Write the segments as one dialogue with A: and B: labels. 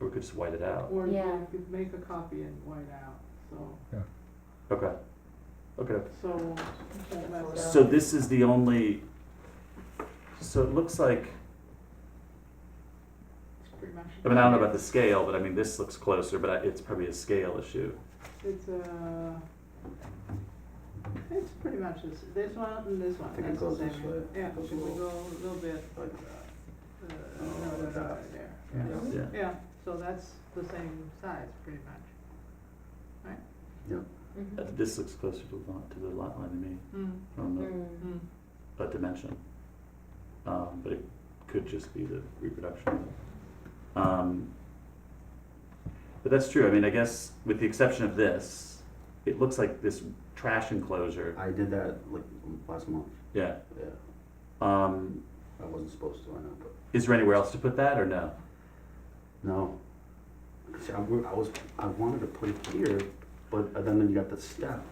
A: we could just white it out.
B: Or
C: Yeah.
B: you could make a copy and white out, so,
A: Okay. Okay.
B: so. that's-
A: So this is the only, so it looks like,
B: it's pretty much-
A: I mean, I don't know about the scale, but I mean, this looks closer, but I- it's probably a scale issue.
B: It's a, it's pretty much this, this one and this one,
D: I think it
B: that's the
D: goes
B: same.
D: this way.
B: Yeah,
D: It goes
B: if we
D: a little-
B: go a little bit,
D: like
B: uh,
D: Oh,
B: no, no,
D: like
B: no,
D: that.
B: there, yeah.
D: Yeah.
A: Yeah.
B: Yeah, so that's the same size, pretty much.
A: Uh,
C: Mhm.
A: This looks closer to the lot, to the lot line to me
B: Mm,
A: from the
C: Mm.
B: mm.
A: a dimension. Um, but it could just be the reproduction. Um, but that's true. I mean, I guess with the exception of this, it looks like this trash enclosure.
D: uh, I did that like m- last month.
A: Yeah.
D: Yeah,
A: Um,
D: I wasn't supposed to. I know, but
A: is there anywhere else to put that or no?
D: no. See, I, wa- I was I wanted to put it here, but uh, then then you got the step,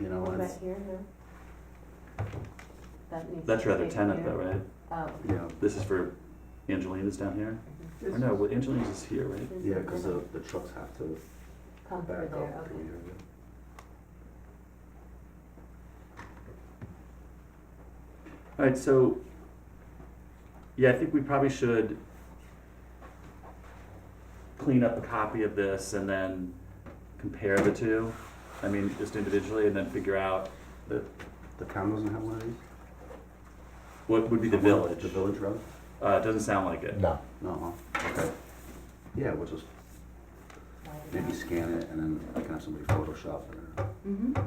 D: you know.
C: What
D: And
C: about
D: it's,
C: here, no? That needs.
A: That's
C: to
A: your other
C: be
A: tenant
C: here.
A: though, right?
C: Oh.
D: yeah,
A: This is for Angelina's down here?
B: This
A: Or no, well, Angelina's is here, right?
C: this
D: yeah,
C: is
D: because
C: gonna
D: the, the trucks have to
C: Come through
D: back
C: there,
D: up
C: okay.
D: through here. yeah.
A: All right, so, yeah, I think we probably should clean up a copy of this and then compare the two. I mean, just individually, and then figure out
D: The town doesn't have one of these.
A: what would be the
D: Someone-
A: village.
D: The village road.
A: Uh, it doesn't sound like it.
E: No.
D: No. Huh? Okay. Yeah, we'll just
C: widen
D: maybe
C: out.
D: scan it and then I can have somebody Photoshop it. Or,
C: Mhm.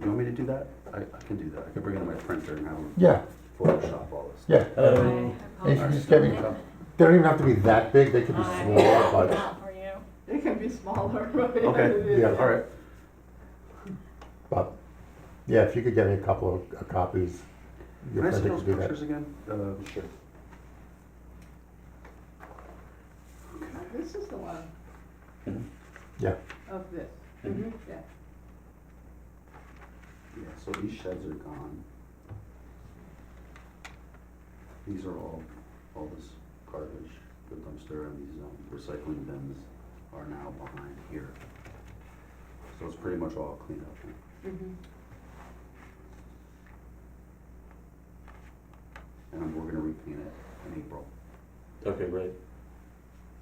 D: you want me to do that? I, I can do that. I could bring it to my printer and have them
E: Yeah,
D: Photoshop all this.
E: yeah.
A: Hello.
E: They should just get me. They don't even have to be that big. They could be
F: Hi.
E: small, but
F: How are you?
B: It can be smaller, but. yeah,
D: Okay,
B: it is,
E: yeah, all right. but yeah, if you could get me a couple of uh, copies, your
D: Can I see
E: printer
D: those
E: could do
D: pictures
E: that.
D: again? Uh, sure.
B: This is the one.
A: Mhm.
E: Yeah.
B: Of this,
A: Mm-hmm.
C: Mhm.
B: yeah.
D: Yeah, so these sheds are gone. These are all, all this garbage, the dumpster and these um, recycling bins are now behind here. So it's pretty much all cleaned up.
C: Mhm.
D: And I'm- we're gonna repaint it in April.
A: Okay, great.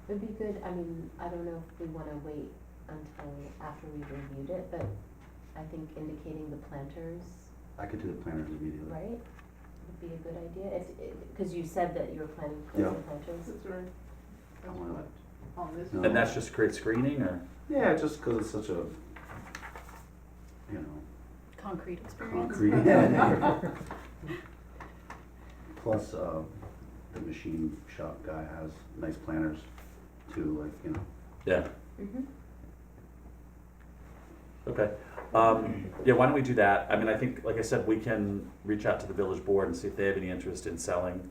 C: It'd be good, I mean, I don't know if we wanna wait until after we've reviewed it, but I think indicating the planters,
D: I could do the planters immediately.
C: right? Would be a good idea, if, it- cause you said that you were planning for
D: Yeah.
C: the planters.
B: This is right. That's
D: wanna-
B: what, on Oh, this.
D: No.
A: And that's just create screening or?
D: Yeah, just because it's such a, you know,
F: Concrete experience.
D: concrete. Plus, uh, the machine shop guy has nice planners too, like, you know,
A: Yeah,
C: Mm-hmm.
A: okay. Um, yeah, why don't we do that? I mean, I think, like I said, we can reach out to the village board and see if they have any interest in selling.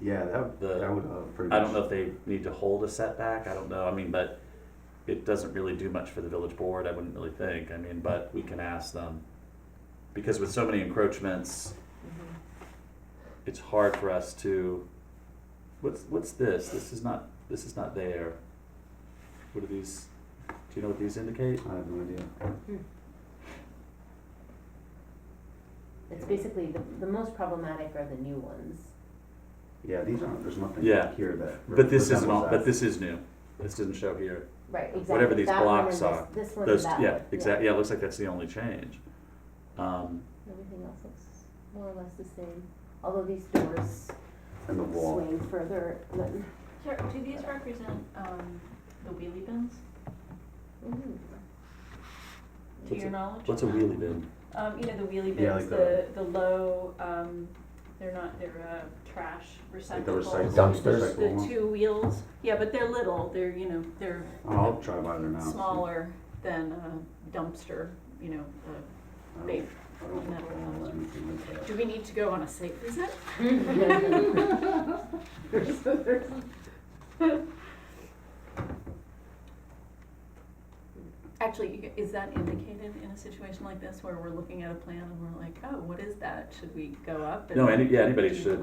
D: yeah, that,
A: The-
D: that would, uh, pretty much.
A: I don't know if they need to hold a setback, I don't know, I mean, but it doesn't really do much for the village board, I wouldn't really think, I mean, but we can ask them. Because with so many encroachments,
C: Mm-hmm.
A: it's hard for us to, what's, what's this? This is not, this is not there. What are these, do you know what these indicate?
D: I have no idea.
C: It's basically, the, the most problematic are the new ones.
D: Yeah, these aren't, there's nothing
A: Yeah.
D: here that.
A: But this isn't,
D: resembles
A: all- but
D: that.
A: this is new, this doesn't show here.
C: Right, exactly.
A: Whatever these
C: That one
A: blocks
C: and this-
A: are,
C: This one and
A: Those,
C: that one.
A: yeah, exactly, yeah, it looks like that's the only change. Um,
C: Everything else looks more or less the same, although these doors
D: And the wall.
C: swing further than.
F: Sir, do these represent, um, the wheelie bins,
C: Mhm.
F: to
A: What's
F: your
A: a-
F: knowledge?
A: what's a wheelie bin?
F: Um, you know, the wheelie
D: Yeah, like
F: bins, the, the low, um, they're not, they're, uh, trash
D: Like the
F: receptacles.
D: recycle.
E: Dumpsters.
D: recycle
F: The
D: one.
F: two wheels, yeah, but they're little, they're, you know, they're
D: I'll try by there now. see.
F: smaller than a dumpster, you know,
D: I
F: uh,
A: Oh.
D: don't-
F: big.
D: I don't
F: metal
D: recognize
F: one.
D: anything like
F: Do
D: that.
F: we need to go on a site visit?
C: Mm-hmm.
B: There's- there's-
F: Actually, you- is that indicated in a situation like this where we're looking at a plan and we're like, oh, what is that? Should we go up? and-
A: No, any, yeah, anybody
F: Do you-
A: should